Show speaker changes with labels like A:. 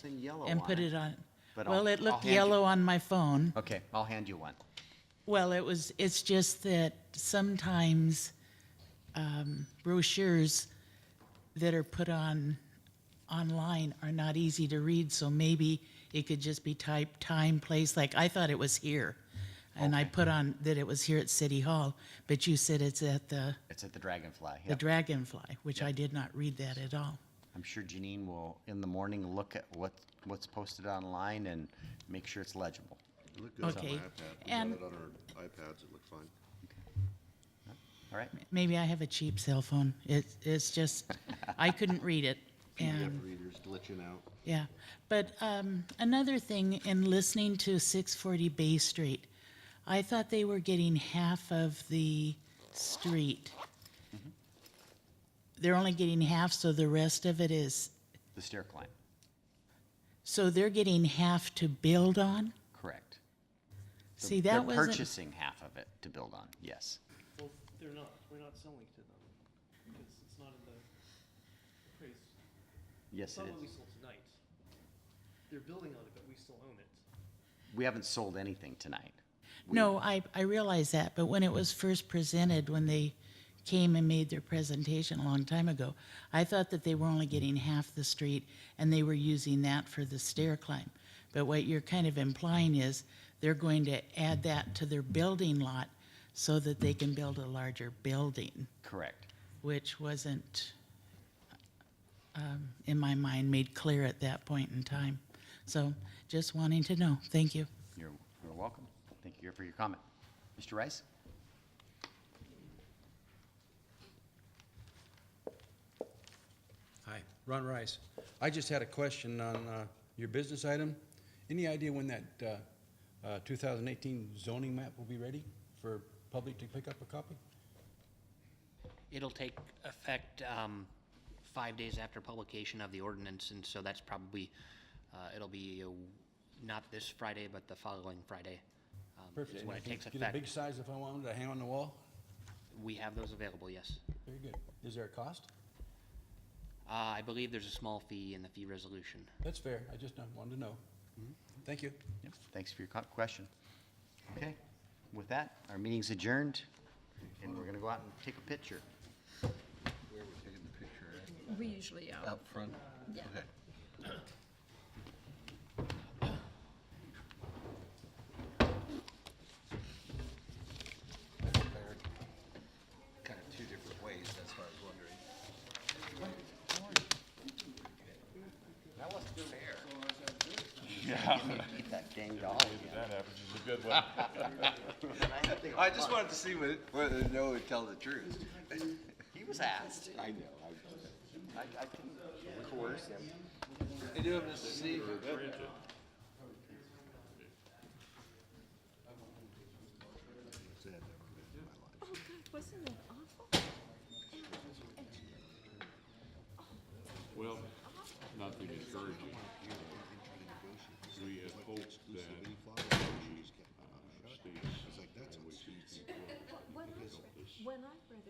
A: something yellow on it.
B: and put it on.
A: But
B: Well,
A: I'll-
B: it
A: I'll
B: looked
A: hand you-
B: yellow on my phone.
A: Okay, I'll hand you one.
B: Well, it was, it's just that sometimes um, brochures that are put on, online are not easy to read, so maybe it could just be typed time, place, like I thought it was here. And I put on that it was here at City Hall, but you said it's at the,
A: It's at the Dragonfly.
B: the
A: Yep.
B: Dragonfly, which I did not read that at all.
A: I'm sure Janine will, in the morning, look at what, what's posted online and make sure it's legible.
C: It looked good on my
B: Okay,
C: iPad. We got
B: and-
C: it on our iPads, it looked fine.
A: All right?
B: Maybe I have a cheap cell phone. It, it's just, I couldn't read it. And
C: PDF readers glitching out.
B: Yeah, but um, another thing, in listening to 640 Bay Street, I thought they were getting half of the street.
A: Mm-hmm.
B: They're only getting half, so the rest of it is,
A: The stair climb,
B: so they're getting half to build on?
A: correct. So
B: See, that
A: They're
B: wasn't,
A: purchasing half of it to build on, yes.
D: Well, they're not, we're not selling to them, because it's not in the appraised, it's
A: Yes, it
D: not what we
A: is.
D: sold tonight. They're building on it, but we still own it.
A: We haven't sold anything tonight.
B: no, I, I realize that, but when it was first presented, when they came and made their presentation a long time ago, I thought that they were only getting half the street and they were using that for the stair climb. But what you're kind of implying is they're going to add that to their building lot so that they can build a larger building,
A: Correct.
B: which wasn't, um, in my mind, made clear at that point in time. So just wanting to know. Thank you.
A: You're, you're welcome. Thank you for your comment. Mr. Rice?
E: Hi, Ron Rice. I just had a question on uh, your business item. Any idea when that uh, uh, 2018 zoning map will be ready for public to pick up a copy?
F: It'll take effect um, five days after publication of the ordinance, and so that's probably, uh, it'll be uh, not this Friday, but the following Friday um,
E: Perfect.
F: is
E: And
F: when
E: I
F: it
E: can
F: takes
E: Get a big
F: effect.
E: size if I wanted to hang on the wall?
F: We have those available, yes.
E: Very good. Is there a cost?
F: Uh, I believe there's a small fee in the fee resolution.
E: That's fair. I just uh, wanted to know.
F: Mm-hmm.
E: Thank you.
A: Yep, Thanks for your co- question. Okay, with that, our meeting's adjourned, and we're gonna go out and take a picture.
G: We usually are. Up front? Yeah.
C: Kind of two different ways, that's why I was wondering.
A: Get that dang dog.
C: I just wanted to see whether, whether they know would tell the truth.
A: He was asked.
C: I know. I, I can coerce him. I do have to see.
G: Oh, God, wasn't it awful?
H: Well, nothing encouraging. We had hoped that the uh, state's
G: When I read it,